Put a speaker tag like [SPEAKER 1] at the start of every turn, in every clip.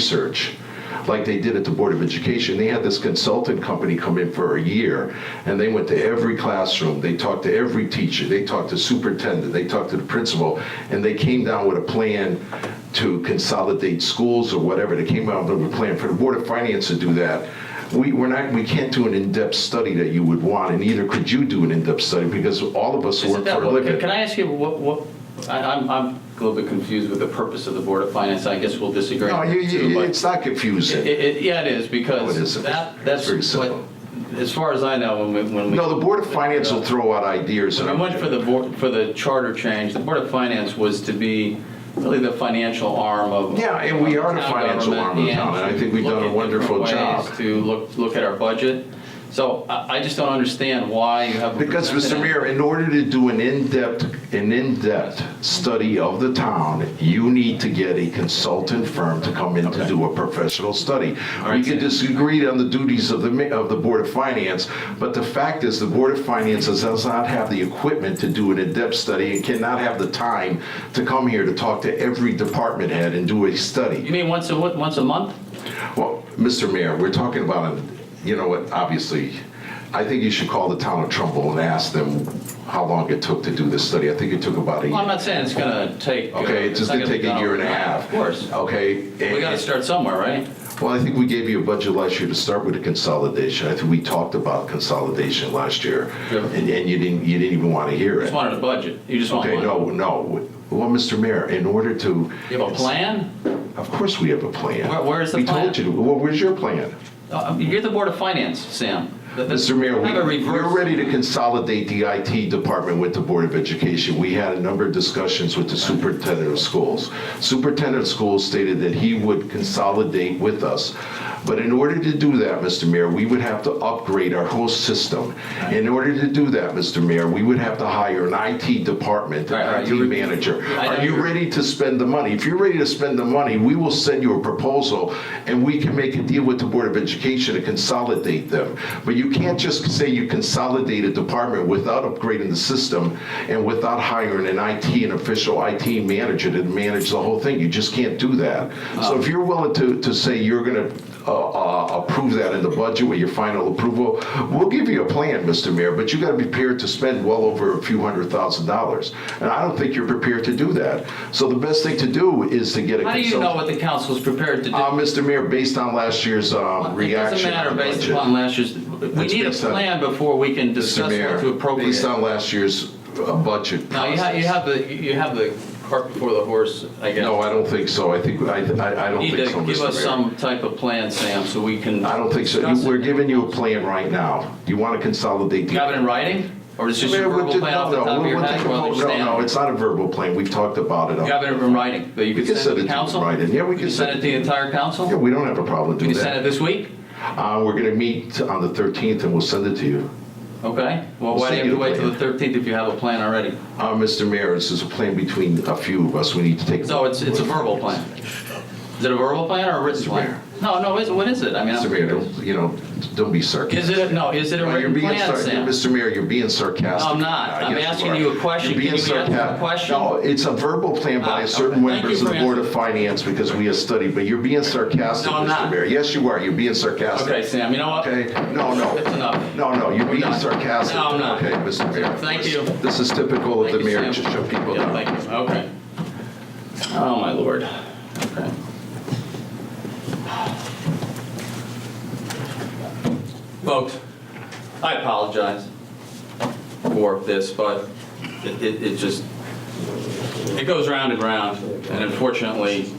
[SPEAKER 1] research, like they did at the Board of Education. They had this consultant company come in for a year, and they went to every classroom, they talked to every teacher, they talked to superintendent, they talked to the principal, and they came down with a plan to consolidate schools or whatever. They came out with a plan for the Board of Finance to do that. We, we're not, we can't do an in-depth study that you would want, and neither could you do an in-depth study, because all of us
[SPEAKER 2] Isn't
[SPEAKER 1] work
[SPEAKER 2] that
[SPEAKER 1] for a
[SPEAKER 2] what-
[SPEAKER 1] living.
[SPEAKER 2] Can I ask you what, what, I- I'm, I'm a little bit confused with the purpose of the Board of Finance, I guess we'll disagree.
[SPEAKER 1] No,
[SPEAKER 2] on
[SPEAKER 1] you,
[SPEAKER 2] this too,
[SPEAKER 1] you,
[SPEAKER 2] but
[SPEAKER 1] it's not
[SPEAKER 2] it-
[SPEAKER 1] confusing.
[SPEAKER 2] it- Yeah, it is,
[SPEAKER 1] No, it
[SPEAKER 2] because
[SPEAKER 1] isn't.
[SPEAKER 2] that,
[SPEAKER 1] It's
[SPEAKER 2] that's
[SPEAKER 1] very simple.
[SPEAKER 2] what, as far as I know, when we, when we.
[SPEAKER 1] No, the Board of Finance will throw out ideas.
[SPEAKER 2] When
[SPEAKER 1] and
[SPEAKER 2] we went for the board, for the charter change, the Board of Finance was to be really the financial arm of.
[SPEAKER 1] Yeah, and we
[SPEAKER 2] of
[SPEAKER 1] are the
[SPEAKER 2] town
[SPEAKER 1] financial
[SPEAKER 2] government
[SPEAKER 1] arm of the town, and I
[SPEAKER 2] to
[SPEAKER 1] think we've
[SPEAKER 2] look
[SPEAKER 1] done a
[SPEAKER 2] at
[SPEAKER 1] wonderful
[SPEAKER 2] different ways
[SPEAKER 1] job.
[SPEAKER 2] To look, look at our budget. So I, I just don't understand why you have. a
[SPEAKER 1] Because, Mr.
[SPEAKER 2] representative-
[SPEAKER 1] Mayor, in order to do an in-depth, an in-depth study of the town, you need to get a consultant firm to come in to do a professional study. We
[SPEAKER 2] right,
[SPEAKER 1] could
[SPEAKER 2] Sam.
[SPEAKER 1] disagree on the duties of the, ma- of the Board of Finance, but the fact is, the Board of Finance does not have the equipment to do an in-depth study and cannot have the time to come here to talk to every department head and do a study.
[SPEAKER 2] You mean once a, what- once a month?
[SPEAKER 1] Well, Mr. Mayor, we're talking about, an- you know what, obviously, I think you should call the town of Trumbull and ask them how long it took to do this study. I think it took about a
[SPEAKER 2] Well, I'm
[SPEAKER 1] year.
[SPEAKER 2] not saying it's gonna take. uh,
[SPEAKER 1] Okay, it
[SPEAKER 2] it's
[SPEAKER 1] just
[SPEAKER 2] not
[SPEAKER 1] didn't
[SPEAKER 2] gonna
[SPEAKER 1] take
[SPEAKER 2] be
[SPEAKER 1] a
[SPEAKER 2] done
[SPEAKER 1] year and a
[SPEAKER 2] overnight.
[SPEAKER 1] half.
[SPEAKER 2] Of course.
[SPEAKER 1] Okay?
[SPEAKER 2] We gotta
[SPEAKER 1] and-
[SPEAKER 2] start somewhere, right?
[SPEAKER 1] Well, I think we gave you a budget last year to start with a consolidation. I think we talked about consolidation last year.
[SPEAKER 2] Yeah.
[SPEAKER 1] And and you didn't, you didn't even want to hear
[SPEAKER 2] Just
[SPEAKER 1] it.
[SPEAKER 2] wanted a budget. You just want
[SPEAKER 1] Okay,
[SPEAKER 2] one.
[SPEAKER 1] no, no. Well, Mr. Mayor, in order to.
[SPEAKER 2] You have a plan?
[SPEAKER 1] Of course we have a plan.
[SPEAKER 2] Where- where is the
[SPEAKER 1] We
[SPEAKER 2] plan?
[SPEAKER 1] told you, well, where's your plan?
[SPEAKER 2] Uh, You're the Board of Finance, Sam. Th- th-
[SPEAKER 1] Mr. Mayor,
[SPEAKER 2] have a
[SPEAKER 1] we- we're
[SPEAKER 2] reverse-
[SPEAKER 1] ready to consolidate the IT department with the Board of Education. We had a number of discussions with the superintendent of schools. Superintendent of schools stated that he would consolidate with us. But in order to do that, Mr. Mayor, we would have to upgrade our whole system. In order to do that, Mr. Mayor, we would have to hire an IT department,
[SPEAKER 2] All right, all right,
[SPEAKER 1] an IT
[SPEAKER 2] you-
[SPEAKER 1] manager.
[SPEAKER 2] I know
[SPEAKER 1] Are you
[SPEAKER 2] you're-
[SPEAKER 1] ready to spend the money? If you're ready to spend the money, we will send you a proposal and we can make a deal with the Board of Education to consolidate them. But you can't just say you consolidate a department without upgrading the system and without hiring an IT, an official IT manager to manage the whole thing. You just can't do that.
[SPEAKER 2] Oh.
[SPEAKER 1] So if you're willing to, to say you're gonna uh, uh, approve that in the budget with your final approval, we'll give you a plan, Mr. Mayor, but you gotta be prepared to spend well over a few hundred thousand dollars. And I don't think you're prepared to do that. So the best thing to do is to get a
[SPEAKER 2] How do you know
[SPEAKER 1] consultant.
[SPEAKER 2] what the council's prepared to do?
[SPEAKER 1] Uh, Mr. Mayor, based on last year's uh,
[SPEAKER 2] It doesn't
[SPEAKER 1] reaction
[SPEAKER 2] matter
[SPEAKER 1] on the
[SPEAKER 2] based
[SPEAKER 1] budget.
[SPEAKER 2] upon last year's, we
[SPEAKER 1] It's
[SPEAKER 2] need a
[SPEAKER 1] based on-
[SPEAKER 2] plan before we can
[SPEAKER 1] Mr.
[SPEAKER 2] discuss
[SPEAKER 1] Mayor,
[SPEAKER 2] what to appropriate.
[SPEAKER 1] Based on last year's uh, budget
[SPEAKER 2] Now, you have, you
[SPEAKER 1] process.
[SPEAKER 2] have the, you have the cart before the horse, I guess.
[SPEAKER 1] No, I don't think so. I think, I, I I don't
[SPEAKER 2] You need
[SPEAKER 1] think so,
[SPEAKER 2] to give
[SPEAKER 1] Mr.
[SPEAKER 2] us
[SPEAKER 1] Mayor.
[SPEAKER 2] some type of plan, Sam, so we can.
[SPEAKER 1] I don't think so.
[SPEAKER 2] discuss it.
[SPEAKER 1] We're giving you a plan right now. You wanna consolidate the
[SPEAKER 2] You have it in writing? Or is this
[SPEAKER 1] Mayor,
[SPEAKER 2] your
[SPEAKER 1] we'll
[SPEAKER 2] verbal
[SPEAKER 1] do-
[SPEAKER 2] plan
[SPEAKER 1] no,
[SPEAKER 2] off the
[SPEAKER 1] no,
[SPEAKER 2] top of
[SPEAKER 1] we'll-
[SPEAKER 2] your
[SPEAKER 1] we'll
[SPEAKER 2] head?
[SPEAKER 1] take a
[SPEAKER 2] You
[SPEAKER 1] vote.
[SPEAKER 2] understand?
[SPEAKER 1] No, no, it's not a verbal plan, we've talked about it.
[SPEAKER 2] You have it in writing that you
[SPEAKER 1] We
[SPEAKER 2] can
[SPEAKER 1] can
[SPEAKER 2] send
[SPEAKER 1] send
[SPEAKER 2] to
[SPEAKER 1] it
[SPEAKER 2] the
[SPEAKER 1] to
[SPEAKER 2] council?
[SPEAKER 1] writing. Yeah, we
[SPEAKER 2] You
[SPEAKER 1] can
[SPEAKER 2] send it
[SPEAKER 1] send
[SPEAKER 2] to the entire council?
[SPEAKER 1] Yeah, we don't have a problem
[SPEAKER 2] Can
[SPEAKER 1] doing
[SPEAKER 2] you send it
[SPEAKER 1] that.
[SPEAKER 2] this week?
[SPEAKER 1] Uh, We're gonna meet on the 13th and we'll send it to you.
[SPEAKER 2] Okay, well,
[SPEAKER 1] We'll
[SPEAKER 2] why do
[SPEAKER 1] send
[SPEAKER 2] you have to
[SPEAKER 1] you a
[SPEAKER 2] wait till the 13th if you have a plan already?
[SPEAKER 1] Uh, Mr. Mayor, this is a plan between a few of us, we need to take.
[SPEAKER 2] So it's, it's a verbal plan? Is it a verbal plan or a written plan?
[SPEAKER 1] Mayor.
[SPEAKER 2] No, no, is, what is it? I mean,
[SPEAKER 1] Mr. Mayor, don't, you know, don't be
[SPEAKER 2] is
[SPEAKER 1] sarcastic.
[SPEAKER 2] it, no, is it a
[SPEAKER 1] You're
[SPEAKER 2] written
[SPEAKER 1] being
[SPEAKER 2] plan,
[SPEAKER 1] sar-
[SPEAKER 2] Sam?
[SPEAKER 1] Mr. Mayor, you're being sarcastic. Uh,
[SPEAKER 2] No, I'm not. I'm
[SPEAKER 1] Yes,
[SPEAKER 2] asking
[SPEAKER 1] are.
[SPEAKER 2] you a question.
[SPEAKER 1] You're being
[SPEAKER 2] Can you answer the
[SPEAKER 1] sarcastic.
[SPEAKER 2] question?
[SPEAKER 1] No, it's a verbal plan by
[SPEAKER 2] Ah,
[SPEAKER 1] certain
[SPEAKER 2] okay. Thank
[SPEAKER 1] members
[SPEAKER 2] you
[SPEAKER 1] of the
[SPEAKER 2] for
[SPEAKER 1] Board of Finance because we have studied, but you're being sarcastic,
[SPEAKER 2] No, I'm
[SPEAKER 1] Mr.
[SPEAKER 2] not.
[SPEAKER 1] Mayor. Yes, you are, you're being sarcastic.
[SPEAKER 2] Okay, Sam, you know what?
[SPEAKER 1] Okay, no, no.
[SPEAKER 2] That's enough.
[SPEAKER 1] No, no, you're being
[SPEAKER 2] done.
[SPEAKER 1] sarcastic.
[SPEAKER 2] No, I'm not.
[SPEAKER 1] Okay, Mr. Mayor.
[SPEAKER 2] Thank
[SPEAKER 1] This-
[SPEAKER 2] you.
[SPEAKER 1] This is typical of
[SPEAKER 2] Thank
[SPEAKER 1] the
[SPEAKER 2] you,
[SPEAKER 1] mayor,
[SPEAKER 2] Sam.
[SPEAKER 1] to shut people
[SPEAKER 2] Yeah,
[SPEAKER 1] down.
[SPEAKER 2] thank you, okay. Oh, my lord. Okay. Folks, I apologize for this, but it, it it just, it goes round and round, and unfortunately,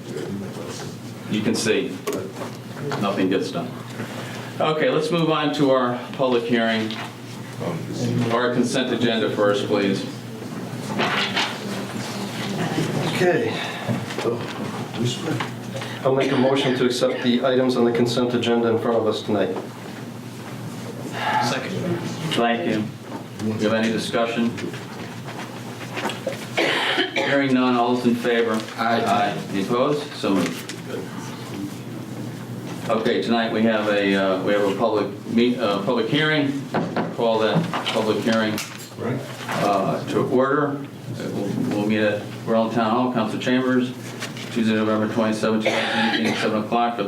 [SPEAKER 2] you can see, nothing gets done. Okay, let's move on to our public hearing, our consent agenda first, please.
[SPEAKER 3] Okay. Oh, I'll make a motion to accept the items on the consent agenda in front of us tonight.
[SPEAKER 2] Thank you. Do you have any discussion? Hearing none, all those in favor? Aye. Aye. Any opposed? So moved. Okay, tonight we have a, uh, we have a public meet, uh, public hearing. Call that public hearing
[SPEAKER 1] Right.
[SPEAKER 2] uh, to order. Uh, We'll we'll meet at Berlin Town Hall, Council Chambers, Tuesday, November 27, 2018, 7 o'clock for the